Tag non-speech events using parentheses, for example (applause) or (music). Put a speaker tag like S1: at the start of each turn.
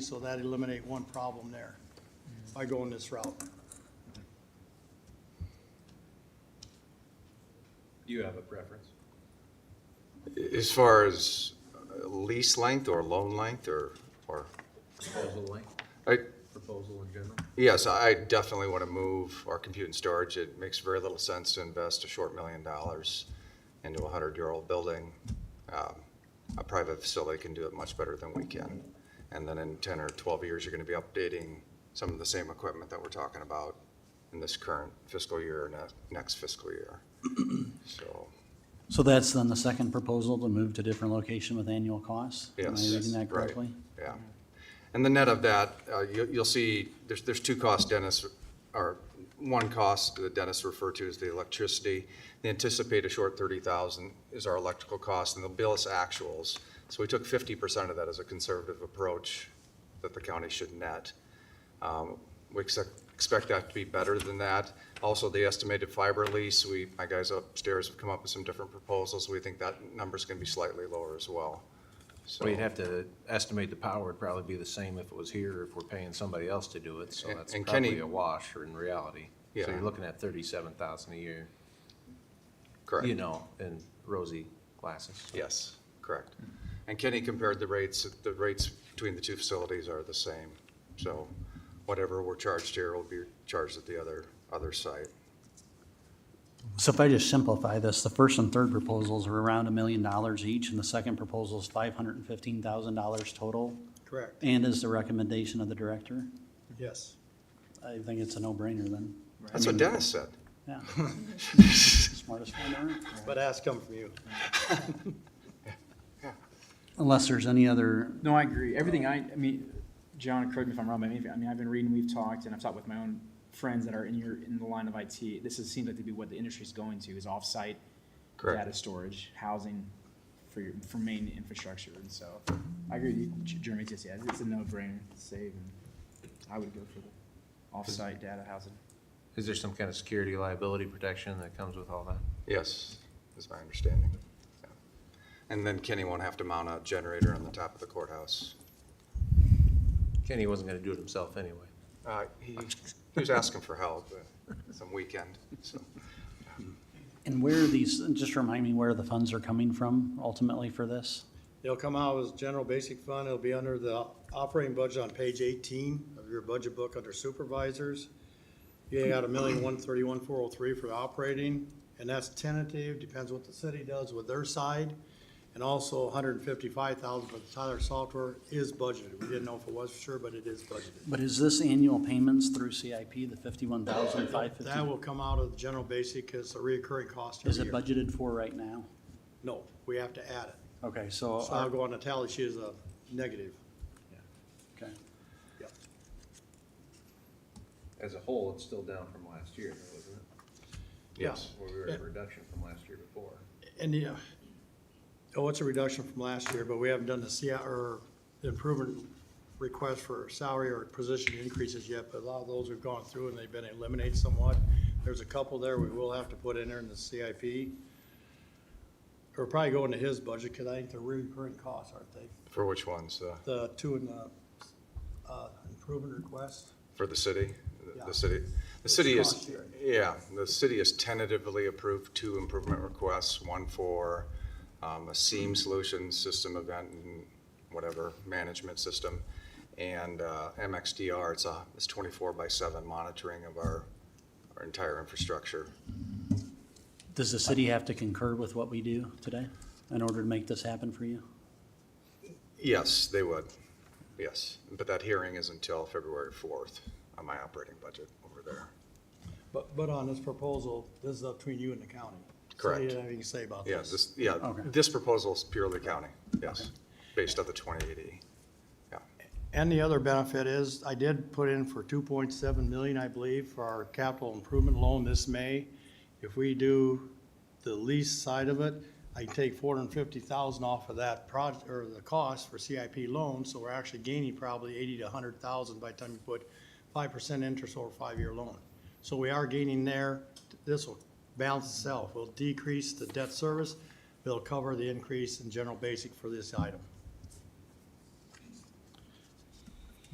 S1: So that eliminate one problem there by going this route.
S2: Do you have a preference?
S3: As far as uh, lease length or loan length or, or,
S2: Proposal length,
S3: I,
S2: proposal in general?
S3: yes, I definitely want to move our compute and storage. It makes very little sense to invest a short million dollars into a hundred-year-old building. Um, A private facility can do it much better than we can. And then in ten or twelve years, you're going to be updating some of the same equipment that we're talking about in this current fiscal year and uh, next fiscal year. (clears throat) So,
S4: So that's then the second proposal to move to different location with annual costs? Am I
S3: Yes,
S4: reading that
S3: right.
S4: correctly?
S3: Yeah. And the net of that, uh, you- you'll see, there's, there's two costs Dennis, or one cost that Dennis referred to as the electricity. They anticipate a short 30,000 is our electrical cost, and they'll bill us actuals. So we took 50% of that as a conservative approach that the county should net. Um, We expect, expect that to be better than that. Also, the estimated fiber lease, we, my guys upstairs have come up with some different proposals. We think that number's going to be slightly lower as well. So-
S5: Well, you'd have to estimate the power would probably be the same if it was here, if we're paying somebody else to do it, so
S3: And-
S5: that's
S3: and Kenny-
S5: probably a wash or in reality. So
S3: Yeah.
S5: you're looking at thirty-seven thousand a year,
S3: Correct.
S5: you know, in rosy glasses.
S3: Yes, correct. And Kenny compared the rates, the rates between the two facilities are the same. So whatever we're charged here will be charged at the other, other site.
S4: So if I just simplify this, the first and third proposals are around a million dollars each, and the second proposal is five hundred and fifteen thousand dollars total,
S1: Correct.
S4: and is the recommendation of the director?
S1: Yes.
S4: I think it's a no-brainer then.
S3: That's what Dennis said.
S4: Yeah.
S3: (laughs)
S4: Smartest one there.
S1: But ask come from you.
S4: Unless there's any other,
S6: No, I agree. Everything I, I mean, John, correct me if I'm wrong, but I mean, I mean, I've been reading, we've talked, and I've talked with my own friends that are in your, in the line of IT. This is, seems like to be what the industry's going to, is offsite
S3: Correct.
S6: data storage, housing for your, for main infrastructure, and so I agree with you, J- Jeremy, just, yeah, it's a no-brainer, save, and I would go for the offsite data housing.
S5: Is there some kind of security liability protection that comes with all that?
S3: Yes, is my understanding. Yeah. And then Kenny won't have to mount a generator on the top of the courthouse.
S5: Kenny wasn't gonna do it himself anyway.
S3: Uh, He he was asking for help uh, some weekend, so.
S4: and where are these, just remind me where the funds are coming from ultimately for this?
S1: It'll come out as general basic fund. It'll be under the operating budget on page eighteen of your budget book under supervisors. You got a million, one thirty-one, four oh three for the operating, and that's tentative, depends what the city does with their side. And also hundred and fifty-five thousand for the Tyler software is budgeted. We didn't know if it was for sure, but it is budgeted.
S4: But is this annual payments through CIP, the fifty-one thousand five fifty?
S1: That will come out of the general basic, because it's a reoccurring cost every
S4: Is
S1: year.
S4: it budgeted for right now?
S1: No, we have to add it.
S4: Okay, so,
S1: So I'll go on the tally sheet as a negative.
S4: okay.
S2: As a whole, it's still down from last year, though, isn't it?
S1: Yes.
S2: Where we were at a reduction from last year before.
S1: And, yeah, uh, oh, it's a reduction from last year, but we haven't done the CI, or the improvement request for salary or position increases yet, but a lot of those we've gone through and they've been eliminated somewhat. There's a couple there we will have to put in there in the CIP. Or probably go into his budget, because I think they're recurring costs, aren't they?
S3: For which ones? Uh,
S1: The two in the, uh, improvement request.
S3: For the city? The-
S1: Yeah.
S3: The city, the city
S1: cost
S3: is,
S1: sharing.
S3: yeah, the city has tentatively approved two improvement requests, one for um, a seam solution system event and whatever, management system, and uh, MXDR, it's a, it's 24 by 7 monitoring of our, our entire infrastructure.
S4: Does the city have to concur with what we do today in order to make this happen for you?
S3: Yes, they would, yes, but that hearing is until February 4th on my operating budget over there.
S1: But, but on this proposal, this is up between you and the county. So you
S3: Correct.
S1: have anything to say about
S3: Yeah,
S1: this?
S3: this, yeah,
S4: Okay.
S3: this proposal is purely county, yes, based on the 2080.
S1: And the other benefit is, I did put in for two point seven million, I believe, for our capital improvement loan this May. If we do the lease side of it, I take four hundred and fifty thousand off of that project, or the cost for CIP loan, so we're actually gaining probably eighty to hundred thousand by the time you put five percent interest over a five-year loan. So we are gaining there, this will balance itself, will decrease the debt service, it'll cover the increase in general basic for this item.